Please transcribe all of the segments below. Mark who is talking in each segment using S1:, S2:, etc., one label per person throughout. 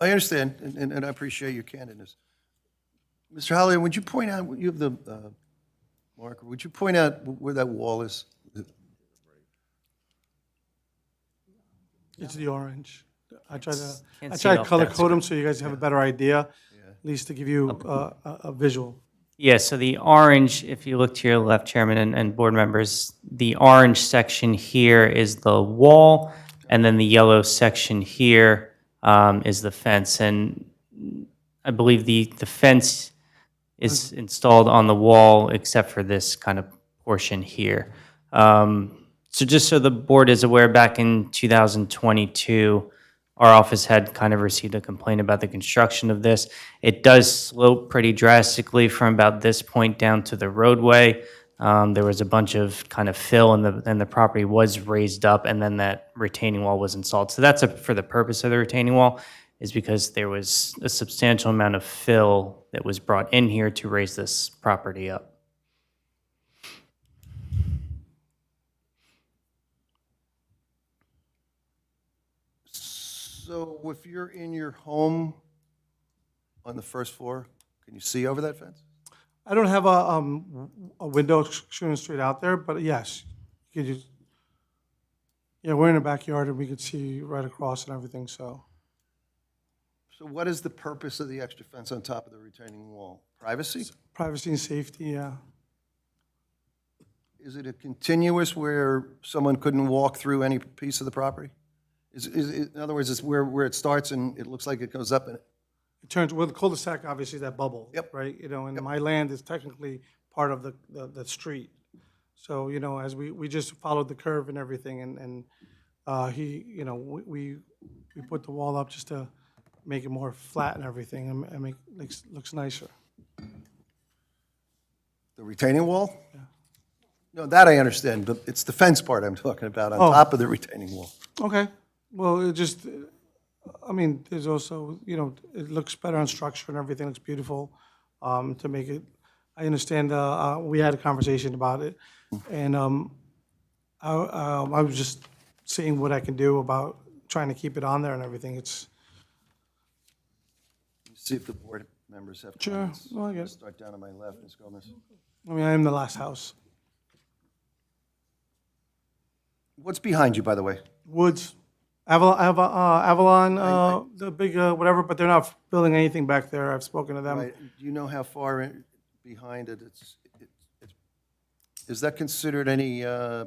S1: I understand, and- and, and I appreciate your candidness. Mr. Holliday, would you point out, you have the uh, marker, would you point out where that wall is?
S2: It's the orange. I tried to,
S3: can't
S2: I
S3: see
S2: tried
S3: it
S2: to
S3: off
S2: color
S3: that
S2: code them so you guys have a better idea, at least to give you uh, a, a visual.
S3: Yeah, so the orange, if you look to your left, Chairman and, and board members, the orange section here is the wall, and then the yellow section here um, is the fence. And I believe the, the fence is installed on the wall except for this kind of portion here. Um, So just so the board is aware, back in 2022, our office had kind of received a complaint about the construction of this. It does slope pretty drastically from about this point down to the roadway. Um, There was a bunch of kind of fill and the, and the property was raised up and then that retaining wall was installed. So that's a- for the purpose of the retaining wall is because there was a substantial amount of fill that was brought in here to raise this property up.
S1: So if you're in your home on the first floor, can you see over that fence?
S2: I don't have a, um, a window sh- shooting straight out there, but yes, you could use, yeah, we're in the backyard and we could see right across and everything, so.
S1: So what is the purpose of the extra fence on top of the retaining wall? Privacy?
S2: Privacy and safety, yeah.
S1: Is it a continuous where someone couldn't walk through any piece of the property? Is, is, in other words, it's where, where it starts and it looks like it goes up and
S2: It turns, well, the cul-de-sac obviously is that bubble.
S1: Yep.
S2: Right, you know, and my land is technically part of the, the, the street. So, you know, as we, we just followed the curve and everything and, and, uh, he, you know, we, we, we put the wall up just to make it more flat and everything and, and make, looks, looks nicer.
S1: The retaining wall? No, that I understand, but it's the fence part I'm talking about,
S2: Oh.
S1: on top of the retaining wall.
S2: Okay, well, it just, uh, I mean, there's also, you know, it looks better on structure and everything looks beautiful um, to make it, I understand, uh, uh, we had a conversation about it. And um, I um, I was just seeing what I can do about trying to keep it on there and everything. It's,
S1: See if the board members have
S2: sure,
S1: comments.
S2: well, I guess,
S1: Start down on my left, Ms. Gomez.
S2: I mean, I am the last house.
S1: What's behind you, by the way?
S2: Woods, Avalon, Avalon, uh, the big, uh, whatever, but they're not building anything back there. I've spoken to them.
S1: I- Uh, Do you know how far in- behind it it's, it- it's- is that considered any, uh,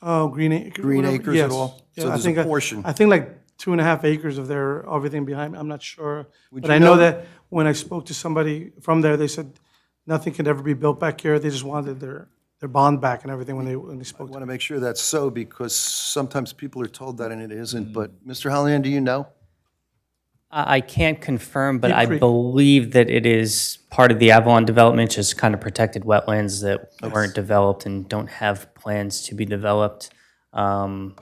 S2: Oh, Green Acres.
S1: Green acres at all? So there's a portion.
S2: I think like two and a half acres of their, everything behind, me. I'm not sure. But
S1: you
S2: I know
S1: know-
S2: that when I spoke to somebody from there, they said nothing could ever be built back here. They just wanted their, their bond back and everything when they, when they spoke
S1: I
S2: to
S1: want to make sure that's so because sometimes people are told that and it isn't,
S2: Mm.
S1: but Mr. Hollihan, do you know?
S3: I I can't confirm, but I
S2: Creek.
S3: believe that it is part of the Avalon development, just kind of protected wetlands that weren't developed and don't have plans to be developed. Um,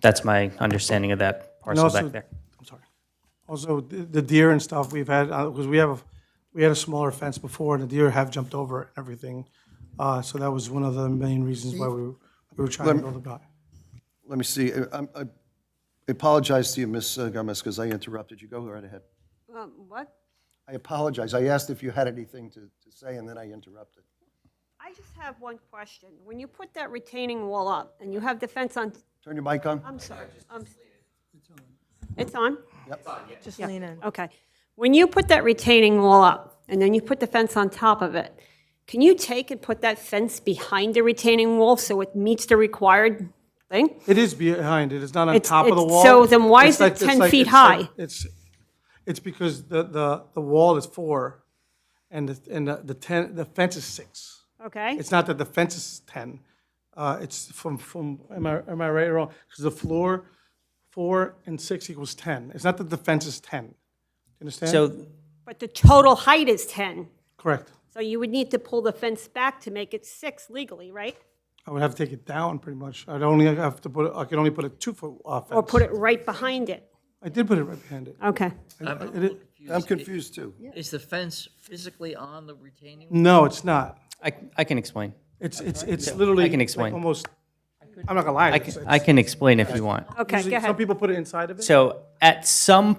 S3: That's my understanding of that parcel
S2: also-
S3: back there.
S2: I'm sorry. Also, the the deer and stuff we've had, because we have, a- we had a smaller fence before, and the deer have jumped over it and everything. Uh, So that was one of the main reasons why we, we were trying to build it back.
S1: Let me see, I- I'm- I apologize to you, Ms. Gomez, because I interrupted you. Go right ahead.
S4: Um, What?
S1: I apologize. I asked if you had anything to, to say, and then I interrupted.
S4: I just have one question. When you put that retaining wall up and you have the fence on,
S1: Turn your mic on.
S4: I'm sorry. um, It's on?
S5: Just lean in.
S4: Okay. When you put that retaining wall up and then you put the fence on top of it, can you take and put that fence behind the retaining wall so it meets the required thing?
S2: It is behind it, it's not on
S4: It's-
S2: top of the
S4: it's-
S2: wall.
S4: so then why
S2: It's
S4: is it
S2: like- it's
S4: 10
S2: like-
S4: feet
S2: it's like-
S4: high?
S2: It's, it's because the, the, the wall is four, and the, and the- the ten, the fence is six.
S4: Okay?
S2: It's not that the fence is ten, uh, it's from, from, am I, am I right or wrong? Because the floor, four and six equals ten, it's not that the fence is ten. Understand?
S3: So
S4: But the total height is 10.
S2: Correct,
S4: So you would need to pull the fence back to make it six legally, right?
S2: I would have to take it down pretty much, I'd only have to put, I could only put a two-foot uh,
S4: Or
S2: fence.
S4: put it right behind it.
S2: I did put it right behind it.
S4: Okay.
S2: I- I did-
S1: I'm confused, too.
S6: Is the fence physically on the retaining? wall?
S2: No, it's not.
S3: I, I can explain.
S2: It's, it's, it's literally.
S3: can
S2: like
S3: explain.
S2: Almost, I'm not gonna lie.
S3: I can, I can explain if you want.
S4: Okay, go ahead.
S2: Some people put it inside of it.
S3: So at some